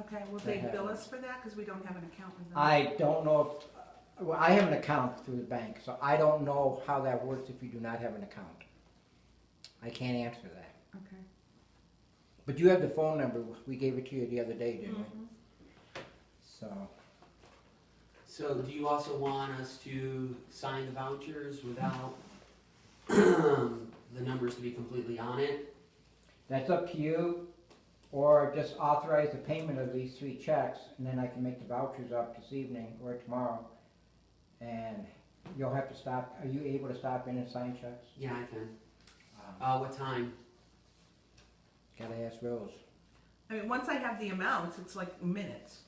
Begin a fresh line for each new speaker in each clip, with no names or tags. Okay, will they bill us for that? Cause we don't have an account with them.
I don't know if, well, I have an account through the bank, so I don't know how that works if you do not have an account. I can't answer that.
Okay.
But you have the phone number, we gave it to you the other day, didn't we?
Mhm.
So,
So do you also want us to sign the vouchers without the numbers to be completely on it?
that's up to you, or just authorize the payment of these three checks, and then I can make the vouchers up this evening or tomorrow. And you'll have to stop, are you able to stop in and sign checks?
Yeah, I can.
Um,
Uh, what time?
Gotta ask Rose.
I mean, once I have the amounts, it's like minutes.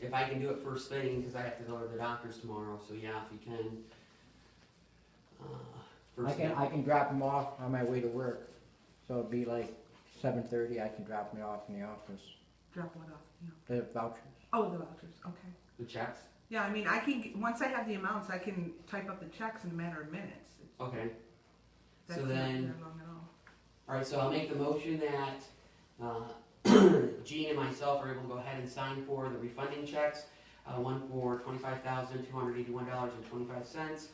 If I can do it first thing, because I have to go to the doctor's tomorrow, so yeah, if you can. uh,
I
First
can,
thing.
I can drop them off on my way to work, so it'd be like seven thirty, I can drop me off in the office,
Drop one off, yeah.
the vouchers.
Oh, the vouchers, okay.
The checks?
Yeah, I mean, I can, g- once I have the amounts, I can type up the checks in a matter of minutes.
Okay.
That's
So
not
then,
very long at all.
alright, so I'll make the motion that, uh, Gene and myself are able to go ahead and sign for the refunding checks. Uh, one for twenty-five thousand, two hundred eighty-one dollars and twenty-five cents.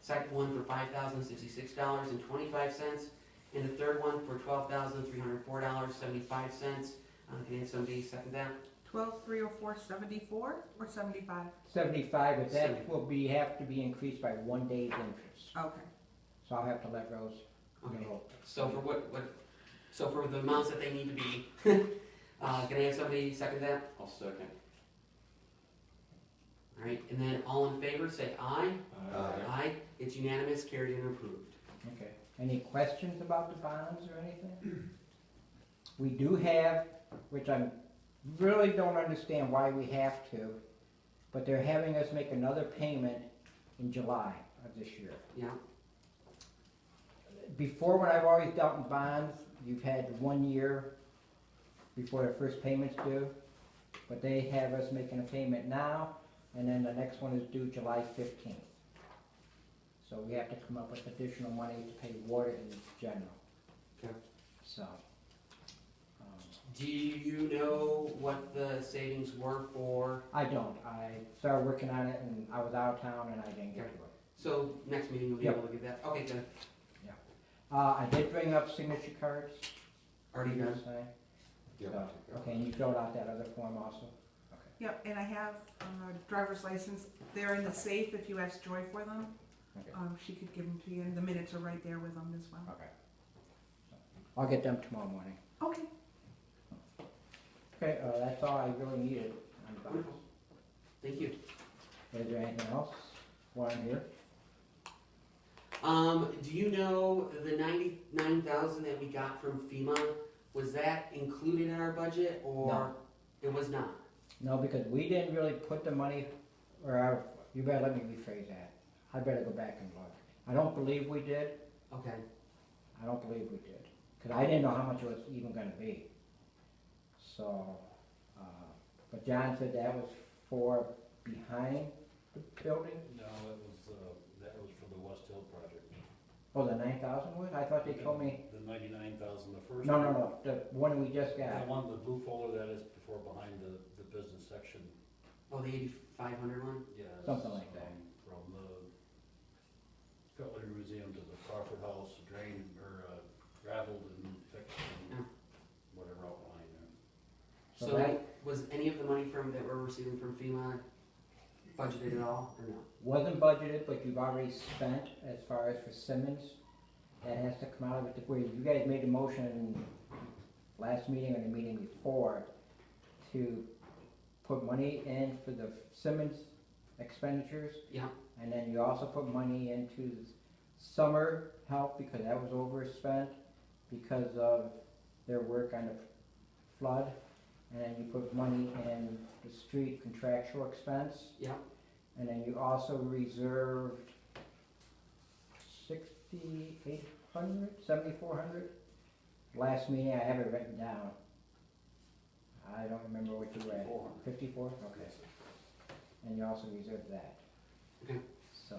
Second one for five thousand, sixty-six dollars and twenty-five cents. And the third one for twelve thousand, three hundred four dollars, seventy-five cents. Uh, can somebody second that?
Twelve, three oh four, seventy-four or seventy-five?
Seventy-five, but that
Seventy.
will be, have to be increased by one day's interest,
Okay.
so I'll have to let Rose
Okay.
know.
So for what, what, so for the amounts that they need to be, uh, can I have somebody second that?
I'll second.
Alright, and then all in favor, say aye.
Aye.
Aye, it's unanimous, carried and approved.
Okay, any questions about the bonds or anything? We do have, which I really don't understand why we have to, but they're having us make another payment in July of this year.
Yeah,
Before, when I've always dealt in bonds, you've had one year before the first payment's due, but they have us making a payment now, and then the next one is due July fifteenth. So we have to come up with additional money to pay water in general.
Okay.
So. um,
do you know what the savings were for,
I don't, I started working on it and I was out of town and I didn't get to it.
so next meeting you'll be
Yep.
able to give that, okay, good,
Uh, I did bring up signature cards.
already
you
done.
say?
Yeah.
So, Okay, and you filled out that other form also?
Yep, and I have uh, driver's license. They're in the safe if you ask Joy for them.
Okay.
Um, she could give them to you, and the minutes are right there with them as well.
Okay. I'll get them tomorrow morning.
Okay,
Okay, uh, that's all I really needed on the box.
Wonderful. Thank you.
Is there anything else while I'm here?
Um, do you know the ninety-nine thousand that we got from FEMA, was that included in our budget, or?
No.
It was not,
No, because we didn't really put the money, or, I- you better let me rephrase that. I better go back and look. I don't believe we did,
okay,
I don't believe we did, because I didn't know how much it was even gonna be. So, uh, but John said that was for behind the building?
No, it was, uh, that was for the West Hill project.
Oh, the nine thousand one? I thought they told me,
The ninety-nine thousand, the first.
no, no,
one.
no, the one we just got.
The one, the blue folder that is before, behind the, the business section,
oh, the eighty-five hundred one,
yeah. it's,
Something like that.
um, From the Cutler Museum to the Crawford House, drain, or, uh, gravelled and fixed
Yeah.
and whatever outline there.
So
so
that-
was any of the money from, that we're receiving from FEMA budgeted at all, or no?
Wasn't budgeted, but you've already spent as far as for Simmons. That has to come out of it, where you guys made a motion last meeting or the meeting before to put money in for the Simmons expenditures.
Yeah.
And then you also put money into summer help because that was overspent because of their work on the flood. And then you put money in the street contractual expense.
Yeah.
And then you also reserved sixty-eight hundred, seventy-four hundred? Last meeting, I have it written down. I don't remember what you read.
Four hundred.
Fifty-four, okay. And you also reserve that.
Okay.
So,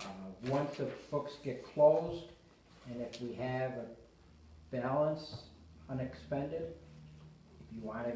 uh, once the books get closed, and if we have a balance unexpended, if you wanna